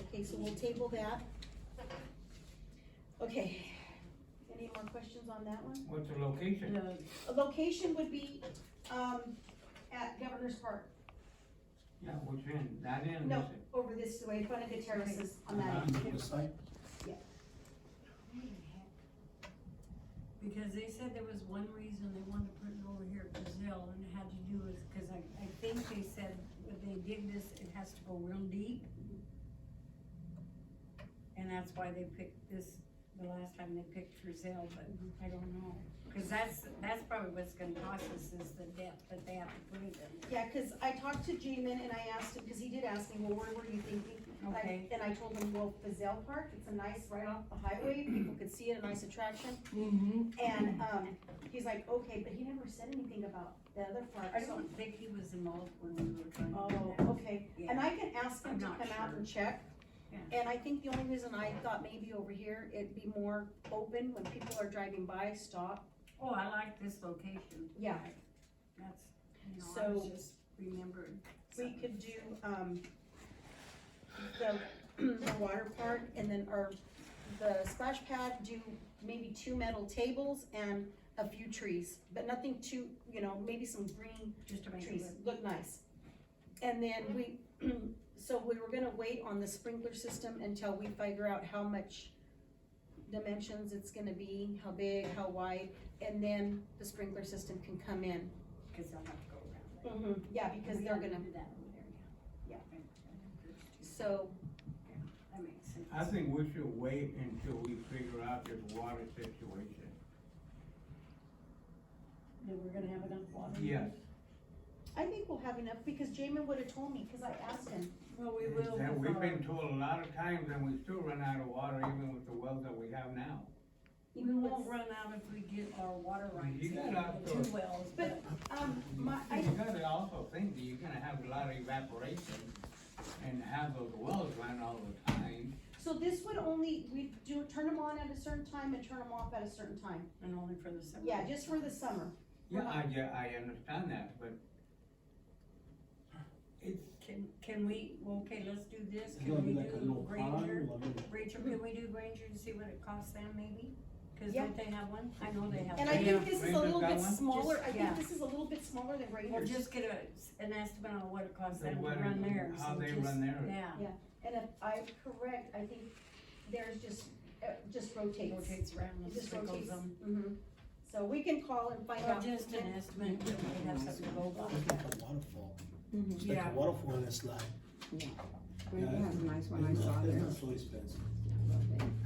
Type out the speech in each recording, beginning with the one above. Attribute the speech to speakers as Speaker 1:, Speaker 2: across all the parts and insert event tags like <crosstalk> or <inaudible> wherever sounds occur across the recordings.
Speaker 1: Okay, so we'll table that. Okay, any more questions on that one?
Speaker 2: What's the location?
Speaker 1: A
Speaker 3: The
Speaker 1: location would be, um, at Governor's Park,
Speaker 2: Yeah, which end? That end is
Speaker 1: no,
Speaker 2: it?
Speaker 1: over this way, in front of the terraces on that. end.
Speaker 4: The site,
Speaker 3: Because they said there was one reason they wanted to put it over here at Brazil, and it had to do with, cause I, I think they said when they dig this, it has to go real deep. And that's why they picked this, the last time they picked Brazil, but I don't know, cause that's, that's probably what's gonna cost us is the depth that they have to put it in.
Speaker 1: Yeah, cause I talked to Jamin and I asked him, cause he did ask me, well, where were you thinking? And I-
Speaker 3: Okay.
Speaker 1: And I told him, well, Fazell Park, it's a nice, right off the highway, people could see it, a nice attraction.
Speaker 3: Mm-hmm.
Speaker 1: And, um, he's like, okay, but he never said anything about the other
Speaker 3: I
Speaker 1: park, so.
Speaker 3: don't think he was involved when we were trying to do
Speaker 1: Oh,
Speaker 3: that.
Speaker 1: okay, and I can ask him
Speaker 3: I'm
Speaker 1: to
Speaker 3: not
Speaker 1: come out
Speaker 3: sure.
Speaker 1: and check.
Speaker 3: Yeah.
Speaker 1: And I think the only reason I thought maybe over here, it'd be more open when people are driving by, stop.
Speaker 3: Oh, I like this location.
Speaker 1: Yeah.
Speaker 3: That's, you know, I was
Speaker 1: So-
Speaker 3: just remembering.
Speaker 1: We could do, um, the, <clears throat> the water park and then, or the splash pad, do maybe two metal tables and a few trees, but nothing too, you know, maybe some green
Speaker 3: Just to make it
Speaker 1: trees, look nice. And then we, <clears throat> so we were gonna wait on the sprinkler system until we figure out how much dimensions it's gonna be, how big, how wide, and then the sprinkler system can come in.
Speaker 3: because they'll have to go around. it.
Speaker 1: Mm-hmm. Yeah, because
Speaker 3: We
Speaker 1: they're
Speaker 3: don't
Speaker 1: gonna,
Speaker 3: do that over there, yeah.
Speaker 1: so,
Speaker 3: That makes sense.
Speaker 2: I think we should wait until we figure out this water situation.
Speaker 3: Then we're gonna have enough water.
Speaker 2: Yes.
Speaker 1: I think we'll have enough, because Jamin would've told me, cause I asked him.
Speaker 3: Well, we will.
Speaker 2: That
Speaker 3: with
Speaker 2: we've
Speaker 3: our-
Speaker 2: been told a lot of times and we still run out of water even with the wells that we have now.
Speaker 3: We won't run out if we get our water rights.
Speaker 2: You
Speaker 3: in,
Speaker 2: gotta-
Speaker 3: the Two wells, but
Speaker 1: But, um, my, I,
Speaker 2: You gotta also think that you're gonna have a lot of evaporation and have those wells run all the time.
Speaker 1: so this would only, we do, turn them on at a certain time and turn them off at a certain time.
Speaker 3: and only for the summer.
Speaker 1: Yeah, just for the summer.
Speaker 2: Yeah, I, yeah, I understand that, but it's,
Speaker 3: Can, can we, well, okay, let's do this.
Speaker 4: it's
Speaker 3: Can
Speaker 4: gonna
Speaker 3: we
Speaker 4: be like a
Speaker 3: do
Speaker 4: little pond,
Speaker 3: Granger?
Speaker 4: I mean,
Speaker 3: Granger, can we do Granger and see what it costs them maybe? Cause
Speaker 1: Yeah.
Speaker 3: don't they have one? I know they have.
Speaker 1: And I
Speaker 3: one.
Speaker 2: Yeah.
Speaker 1: think this is a
Speaker 2: Ranger
Speaker 1: little
Speaker 2: got
Speaker 1: bit
Speaker 2: one?
Speaker 1: smaller, I
Speaker 3: Yeah.
Speaker 1: think this is a little bit smaller than
Speaker 3: Or
Speaker 1: Raiders.
Speaker 3: just get a, an estimate on what it costs
Speaker 2: The
Speaker 3: them to
Speaker 2: weather-
Speaker 3: run theirs.
Speaker 2: how
Speaker 3: and
Speaker 2: they
Speaker 3: just-
Speaker 2: run theirs.
Speaker 3: Yeah.
Speaker 1: And if I'm correct, I think theirs just, uh, just rotates.
Speaker 3: Rotates around
Speaker 1: It
Speaker 3: and
Speaker 1: just
Speaker 3: circles
Speaker 1: rotates.
Speaker 3: them.
Speaker 1: Mhm. So we can call and find
Speaker 3: Or
Speaker 1: out.
Speaker 3: just an estimate, we have something to go by.
Speaker 4: It's like a waterfall, it's like
Speaker 3: Yeah.
Speaker 4: a waterfall and a slide.
Speaker 5: Really has a nice one, I
Speaker 4: It's
Speaker 5: saw
Speaker 4: not- It's
Speaker 5: there.
Speaker 4: not so expensive.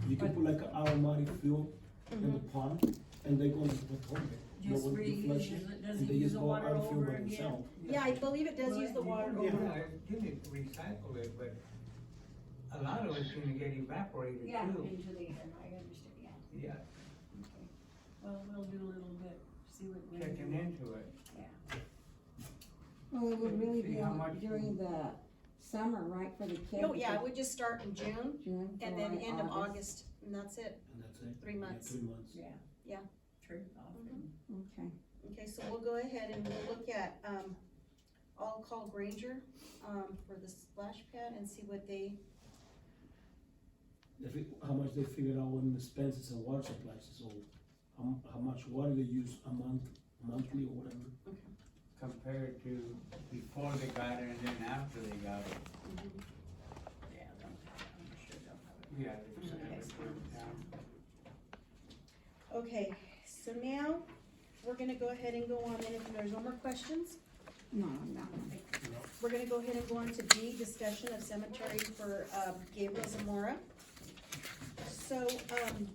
Speaker 4: You can put like an aromatic fuel in
Speaker 1: Mm-hmm.
Speaker 4: the pond, and they go into the toilet. No
Speaker 3: Just
Speaker 4: one can flush
Speaker 3: reuses
Speaker 4: it,
Speaker 3: it,
Speaker 4: and
Speaker 3: doesn't
Speaker 4: they
Speaker 3: use
Speaker 4: just
Speaker 3: the
Speaker 4: go out
Speaker 3: water
Speaker 4: and fuel
Speaker 3: over
Speaker 4: by
Speaker 3: again.
Speaker 4: themselves.
Speaker 1: Yeah, I believe it does use the water
Speaker 2: Yeah,
Speaker 1: over.
Speaker 2: give it, recycle it, but a lot of it's gonna get evaporated
Speaker 3: Yeah,
Speaker 2: too.
Speaker 3: into the air, I understand, yeah.
Speaker 2: Yeah,
Speaker 3: Well, we'll do a little bit, see what we can
Speaker 2: checking
Speaker 3: do.
Speaker 2: into it.
Speaker 5: Well, it would really
Speaker 2: See
Speaker 5: be
Speaker 2: how
Speaker 5: on-
Speaker 2: much-
Speaker 5: during the summer, right, for the kids?
Speaker 1: No, Oh, yeah, we just start in June
Speaker 5: June,
Speaker 1: and then
Speaker 5: July,
Speaker 1: end of August, and that's it.
Speaker 4: And that's it.
Speaker 1: Three
Speaker 4: Yeah,
Speaker 1: months.
Speaker 4: Three months.
Speaker 3: True, often.
Speaker 5: Okay,
Speaker 1: Okay, so we'll go ahead and we'll look at, um, I'll call Granger, um, for the splash pad and see what they,
Speaker 4: They fi- How much they figured out when the expenses and water supplies, so how, m- how much water they use a month, monthly or whatever.
Speaker 2: compared to before they got it and then after they got it.
Speaker 3: Yeah, they'll- I'm sure they'll have it.
Speaker 2: Yeah.
Speaker 3: it's-
Speaker 1: okay, so now, we're gonna go ahead and go on, and if there's no more questions,
Speaker 5: no, not one.
Speaker 1: We're gonna go ahead and go on to B, discussion of cemetery for, um, Gabriel Zamora. So, um,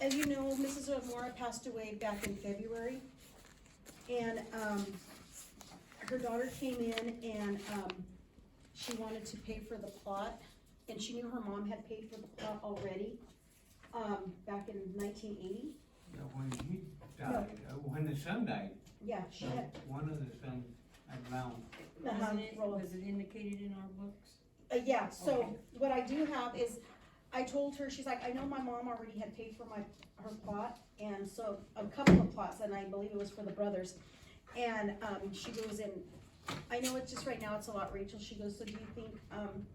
Speaker 1: as you know, Mrs. Zamora passed away back in February. And, um, her daughter came in and, um, she wanted to pay for the plot, and she knew her mom had paid for the plot already, um, back in nineteen eighty.
Speaker 2: When he died, uh, when the son died,
Speaker 1: Yeah, she had,
Speaker 2: one of the sons had drowned.
Speaker 1: Uh-huh.
Speaker 3: Wasn't it, was it indicated in our books?
Speaker 1: Uh, yeah, so
Speaker 3: Okay.
Speaker 1: what I do have is, I told her, she's like, I know my mom already had paid for my, her plot, and so, a couple of plots, and I believe it was for the brothers. And, um, she goes in, I know it's just right now, it's a lot, Rachel, she goes, so do you think, um,